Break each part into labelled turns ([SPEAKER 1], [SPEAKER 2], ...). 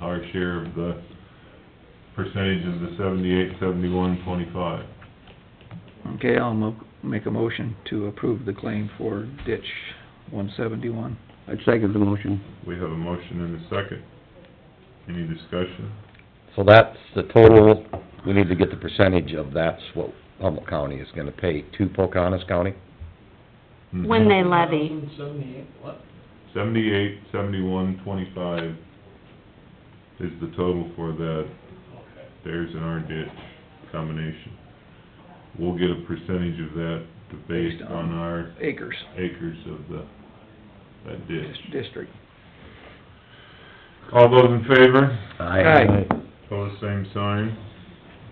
[SPEAKER 1] our share of the percentage of the seventy-eight, seventy-one, twenty-five.
[SPEAKER 2] Okay, I'll mo- make a motion to approve the claim for ditch one seventy-one.
[SPEAKER 3] I'd second the motion.
[SPEAKER 1] We have a motion and a second. Any discussion?
[SPEAKER 4] So that's the total, we need to get the percentage of that's what Humboldt County is gonna pay to Pocahontas County?
[SPEAKER 5] When they levy.
[SPEAKER 1] Mm-hmm. Seventy-eight, seventy-one, twenty-five is the total for that theirs and our ditch combination. We'll get a percentage of that based on our
[SPEAKER 2] Acres
[SPEAKER 1] acres of the, that ditch.
[SPEAKER 2] dis- district.
[SPEAKER 1] All those in favor?
[SPEAKER 2] Aye.
[SPEAKER 1] Pose same sign.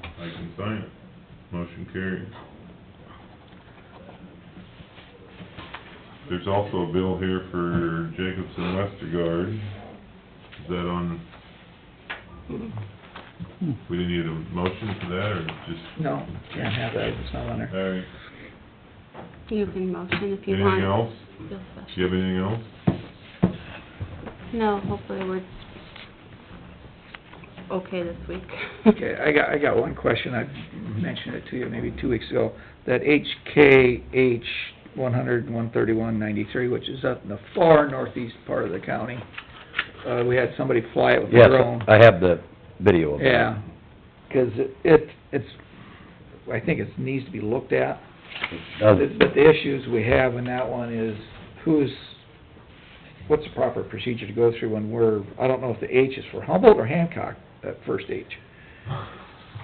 [SPEAKER 1] I can sign it. Motion carries. There's also a bill here for Jacobson Westergaard. Is that on? We didn't need a motion for that, or just,
[SPEAKER 2] No, can't have that, it's not on there.
[SPEAKER 1] all right.
[SPEAKER 5] You can motion if you
[SPEAKER 1] Anything
[SPEAKER 5] want.
[SPEAKER 1] else?
[SPEAKER 5] Feel
[SPEAKER 1] Do you have anything else?
[SPEAKER 5] free. No, hopefully we're okay this week.
[SPEAKER 2] Okay, I got, I got one question, I mentioned it to you maybe two weeks ago. That HKH one hundred, one thirty-one, ninety-three, which is up in the far northeast part of the county. Uh, we had somebody fly it with a
[SPEAKER 4] Yes,
[SPEAKER 2] drone.
[SPEAKER 4] I have the video of that.
[SPEAKER 2] Yeah, 'cause it, it's, I think it needs to be looked at.
[SPEAKER 4] Does
[SPEAKER 2] But but the issues we have in that one is who's, what's the proper procedure to go through when we're, I don't know if the H is for Humboldt or Hancock, that first H.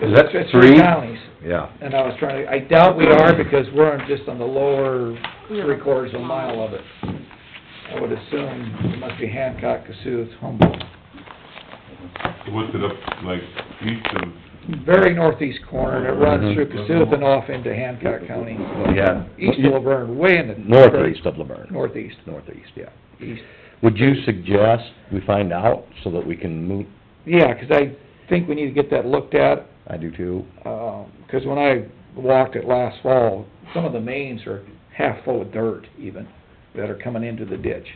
[SPEAKER 2] 'Cause
[SPEAKER 4] Is that
[SPEAKER 2] it's- it's three
[SPEAKER 4] three?
[SPEAKER 2] counties,
[SPEAKER 4] Yeah,
[SPEAKER 2] and I was trying to, I doubt we are because we're on- just on the lower three quarters of a mile of it. I would assume it must be Hancock, Cassuth, Humboldt.
[SPEAKER 1] What's it up, like, east of,
[SPEAKER 2] very northeast corner, and it runs through
[SPEAKER 1] Mhm.
[SPEAKER 2] Cassuth and off into Hancock County.
[SPEAKER 4] yeah.
[SPEAKER 2] East of Laverne, way in the...
[SPEAKER 4] Northeast of Laverne,
[SPEAKER 2] Northeast,
[SPEAKER 4] northeast, yeah.
[SPEAKER 2] east.
[SPEAKER 4] Would you suggest we find out so that we can move,
[SPEAKER 2] Yeah, 'cause I think we need to get that looked at,
[SPEAKER 4] I do too,
[SPEAKER 2] um 'cause when I walked it last fall, some of the mains are half full of dirt even, that are coming into the ditch,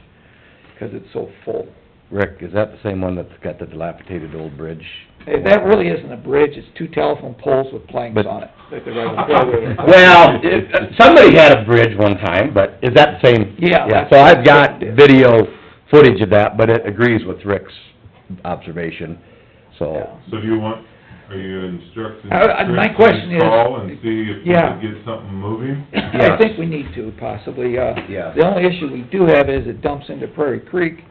[SPEAKER 2] 'cause it's so full.
[SPEAKER 4] Rick, is that the same one that's got the dilapidated old bridge?
[SPEAKER 2] Hey, That really isn't a bridge, it's two telephone poles with planks
[SPEAKER 4] But-
[SPEAKER 2] on it, that they're right on.
[SPEAKER 4] Well, it- somebody had a bridge one time, but is that the same?
[SPEAKER 2] Yeah.
[SPEAKER 4] Yeah, so I've got video footage of that, but it agrees with Rick's observation,
[SPEAKER 2] Yeah.
[SPEAKER 4] so.
[SPEAKER 1] so do you want, are you instructing?
[SPEAKER 2] I- I- Uh, my
[SPEAKER 1] Chris to
[SPEAKER 2] question is-
[SPEAKER 1] Call and see if we
[SPEAKER 2] Yeah.
[SPEAKER 1] can get something moving?
[SPEAKER 2] I think we need to possibly, uh,
[SPEAKER 4] Yeah.
[SPEAKER 2] the only issue we do have is it dumps into Prairie Creek,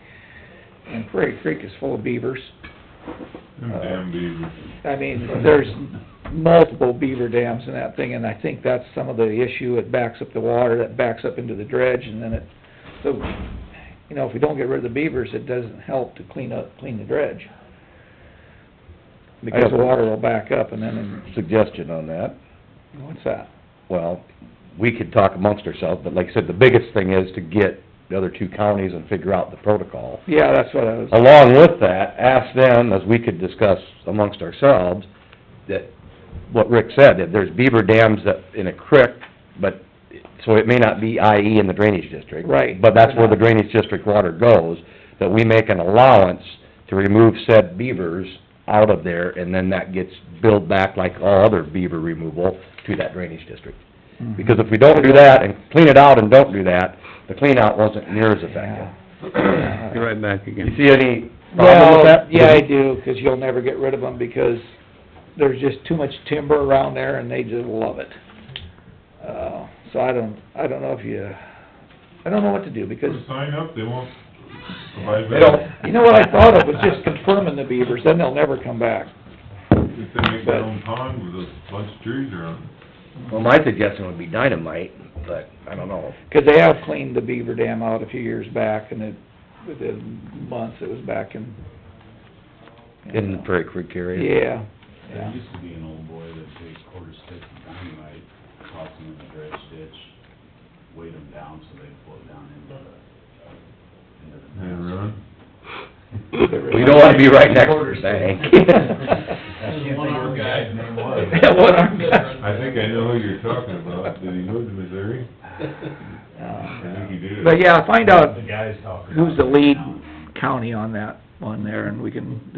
[SPEAKER 2] and Prairie Creek is full of beavers.
[SPEAKER 1] Them damn beavers.
[SPEAKER 2] I mean, there's multiple beaver dams in that thing, and I think that's some of the issue, it backs up the water, that backs up into the dredge, and then it, so, you know, if we don't get rid of the beavers, it doesn't help to clean up, clean the dredge. Because the water will back up, and then,
[SPEAKER 4] Suggestion on that,
[SPEAKER 2] what's that?
[SPEAKER 4] well, we could talk amongst ourselves, but like I said, the biggest thing is to get the other two counties and figure out the protocol.
[SPEAKER 2] Yeah, that's what I was,
[SPEAKER 4] Along with that, ask them, as we could discuss amongst ourselves, that, what Rick said, that there's beaver dams that, in a creek, but, so it may not be IE in the drainage district.
[SPEAKER 2] Right.
[SPEAKER 4] But that's where the drainage district water goes, that we make an allowance to remove said beavers out of there, and then that gets billed back like all other beaver removal to that drainage district. Because if we don't do that, and clean it out and don't do that, the clean out wasn't near as effective.
[SPEAKER 2] yeah.
[SPEAKER 3] Be right back again.
[SPEAKER 4] You see any problem with
[SPEAKER 2] Well,
[SPEAKER 4] that?
[SPEAKER 2] yeah, I do, 'cause you'll never get rid of them, because there's just too much timber around there, and they just love it. Uh, so I don't, I don't know if you, I don't know what to do, because,
[SPEAKER 1] Sign up, they won't provide
[SPEAKER 4] They don't-
[SPEAKER 1] that.
[SPEAKER 2] you know what I thought of was just confirming the beavers, then they'll never come back.
[SPEAKER 1] If they make their own pond with a bunch of trees around it.
[SPEAKER 4] Well, my suggestion would be dynamite, but I don't know.
[SPEAKER 2] 'Cause they have cleaned the beaver dam out a few years back, and it, within months, it was back in.
[SPEAKER 4] In the Prairie Creek area?
[SPEAKER 2] Yeah, yeah.
[SPEAKER 6] There used to be an old boy that takes quarter stick of dynamite, toss them in the dredge ditch, weight them down so they float down into the, into the.
[SPEAKER 1] They run.
[SPEAKER 4] We don't wanna be right next to the
[SPEAKER 6] There's a
[SPEAKER 4] bank.
[SPEAKER 6] one-armed guy. Name was.
[SPEAKER 2] What I'm-
[SPEAKER 1] I think I know who you're talking about. Did he move to Missouri? I
[SPEAKER 2] Uh,
[SPEAKER 1] think he did.
[SPEAKER 2] But yeah, find out
[SPEAKER 6] The guy's talking.
[SPEAKER 2] who's the
[SPEAKER 6] about it
[SPEAKER 2] lead
[SPEAKER 6] now.
[SPEAKER 2] county on that one there, and we can